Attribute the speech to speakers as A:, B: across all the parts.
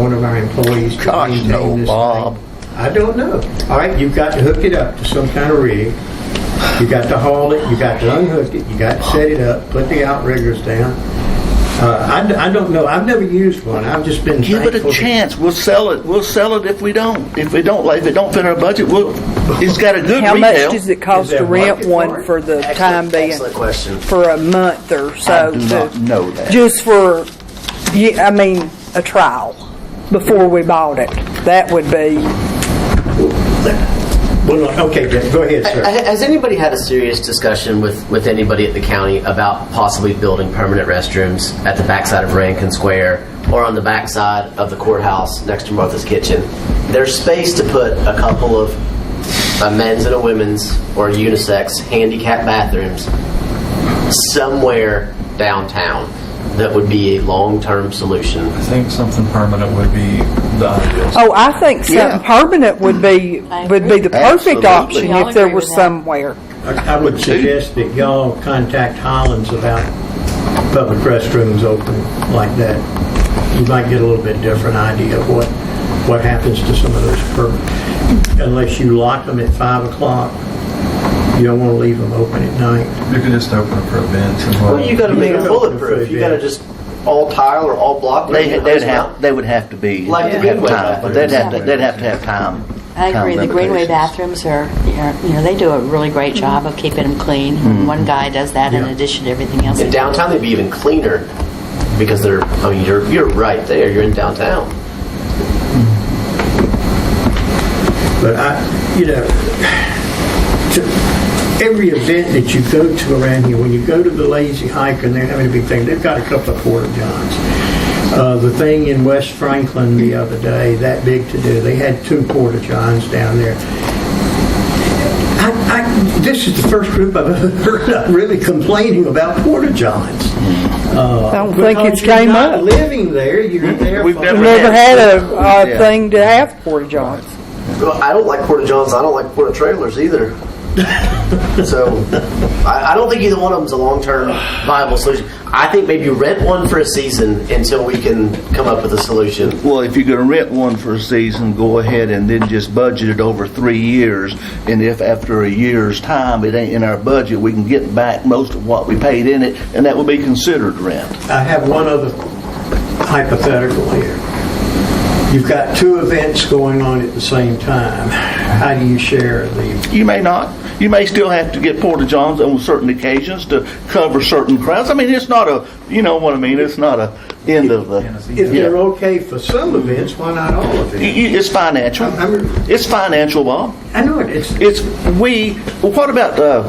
A: one of our employees to
B: Gosh,
A: maintain
B: no,
A: this
B: Bob.
A: thing? I don't know. All right, you've got to hook it up to some kind of rig. You got to haul it. You got to unhook it. You got to set it up. Put the outriggers down. Uh, I, d- I don't know. I've never used one. I've just been
B: Give it a
A: thankful that-
B: chance. We'll sell it. We'll sell it if we don't. If we don't, like, if it don't fit our budget, we'll. It's got a good
C: How
B: retail.
C: much does it cost
A: Is
C: to
A: there
C: rent
A: market for
C: one
A: it?
C: for the time
D: Excellent-
C: being?
D: excellent question.
C: For a month or so?
B: do
C: to-
B: not know that.
C: Just for, ye- I mean, a trial before we bought it. That would be,
A: Well, okay, Jeff, go ahead, sir.
D: Ha- Has anybody had a serious discussion with, with anybody at the county about possibly building permanent restrooms at the backside of Rankin Square or on the backside of the courthouse next to Martha's Kitchen? There's space to put a couple of a men's and a women's or unisex handicap bathrooms somewhere downtown that would be a long-term solution.
E: I think something permanent would be the ideal.
C: oh, I think
B: Yeah.
C: something permanent would be,
F: I
C: would be
F: agree.
C: the perfect
B: Absolutely.
C: option
F: Y'all
C: if there
F: agree
C: were
F: with that.
C: somewhere.
A: I would suggest that y'all contact Highlands about public restrooms open like that. You might get a little bit different idea of what, what happens to some of those per, unless you lock them at five o'clock. You don't want to leave them open at night.
E: You could just open it for events and
D: Well, you got to make it bulletproof. You got to just all tile or all block.
B: They,
D: make
B: they'd
D: those
B: have, they would have to be,
D: Like the
B: have
D: Goodway
B: time, but they'd have to, they'd have to have time.
F: I agree.
B: time
F: The Greenway
B: limitations.
F: bathrooms are, are- you know, they do a really great job of keeping them clean. One guy does that in
A: Yeah.
F: addition to everything else.
D: In downtown, they'd be even cleaner because they're. I mean, you're you're right there. You're in downtown.
A: But I, you know, to, every event that you go to around here, when you go to the Lazy Hike and they're having a big thing, they've got a couple of porta johns. Uh, the thing in West Franklin the other day, that big to do, they had two porta johns down there. I, I, this is the first group I've ever heard of really complaining about porta johns.
C: I don't think
A: Because
C: it's
A: you're
C: came
A: not
C: up.
A: living there, you're there.
B: We've
A: for-
B: never
C: Never had a,
B: Yeah.
C: a thing to have porta johns.
D: Well, I don't like porta johns. I don't like porta trailers either. so, I, I don't think either one of them's a long term viable solution. I think maybe rent one for a season until we can come up with a solution.
B: Well, if you're gonna rent one for a season, go ahead and then just budget it over three years. And if after a year's time, it ain't in our budget, we can get back most of what we paid in it, and that would be considered rent.
A: I have one other hypothetical here. You've got two events going on at the same time. How do you share the,
B: You may not. You may still have to get porta johns on certain occasions to cover certain crowds. I mean, it's not a, you know what I mean. It's not a end of the.
A: if
B: Yeah.
A: they're okay for some events, why not all of
B: You-
A: them?
B: you- It's financial.
A: I'm- I'm-
B: It's financial, Bob.
A: I know it, it's,
B: It's we. well, What about uh,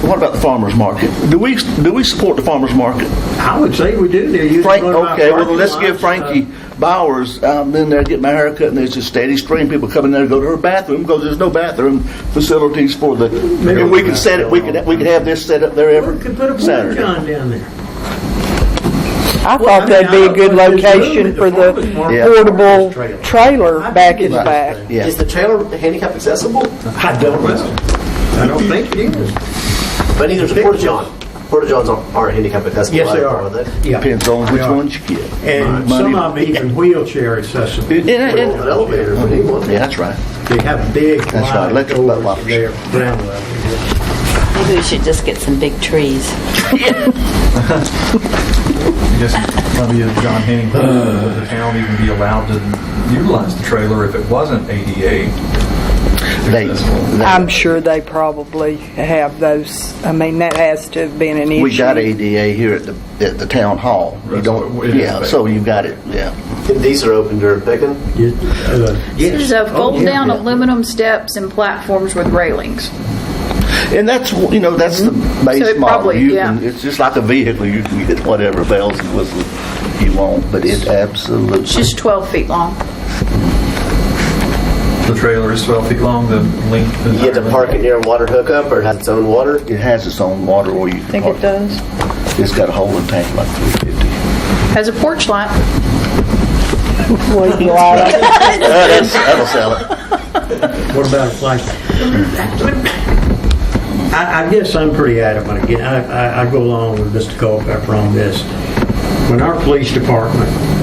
B: what about the farmers market? Do we do we support the farmers market?
A: I would say we do, they're using
B: Frank,
A: one of our
B: okay, well,
A: parking
B: let's
A: lots,
B: give
A: uh,
B: Frankie Bowers, I'm in there getting my hair cut, and there's a steady stream, people coming there to go to her bathroom, because there's no bathroom facilities for the,
A: Maybe
B: and we could set it, we could, we could have this set up there
A: We
B: every
A: could put a porta
B: Saturday.
A: john down there.
C: I thought that'd be a good
A: Well, I mean, I don't-
C: location for
A: there's
C: the
A: room at the
B: Yeah.
C: portable
A: trailer.
C: trailer
A: I
C: back
A: think
C: in the
A: it's-
C: back.
B: Uh, Yeah,
D: Is the trailer handicap accessible?
A: I don't know. I don't think it is.
D: But neither is a porta john. Porta johns aren't, aren't handicap accessible.
A: Yes, they
D: either,
A: are.
D: they?
A: Yeah.
B: depends on which
A: Yeah.
B: ones you get.
A: And
B: Money-
A: some of them even wheelchair accessible.
B: It- it-
D: Put it on an
B: it-
D: elevator if we need one.
B: Yeah, that's right.
A: They have big,
B: right,
A: wide
B: electric light
A: doors
B: bulbs.
A: there, ground level.
F: Maybe we should just get some big trees.
E: Just maybe a John Henning, would the town even be allowed to utilize the trailer if it wasn't ADA?
B: They- they-
C: I'm sure they probably have those. I mean, that has to have been an issue.
B: We got ADA here at the, at the town hall. You
E: That's
B: don't,
E: what it is,
B: yeah,
E: but-
B: so you got it, yeah.
D: And these are open during picking.
A: You- uh,
G: There's a
A: Oh, yeah,
G: fold-down
A: yeah.
G: aluminum steps and platforms with railings.
B: And that's, you know, that's the base
G: So it
B: model.
G: probably-
B: you
G: yeah.
B: can, it's just like a vehicle. You can get whatever bells and whistles you want, but it absolutely.
G: It's just 12 feet long.
E: The trailer is 12 feet long, the length.
D: You get to park it near a water hookup or it has its own water.
B: it has its own water or you can
G: Think
B: park.
G: it does?
B: It's got a holding tank like 350.
G: Has a porch light.
C: Leave the light on.
B: That's- That'll sell it.
A: What about a flight? I, I guess I'm pretty adamant again. I, I, I go along with Mr. Culpepper on this. When our police department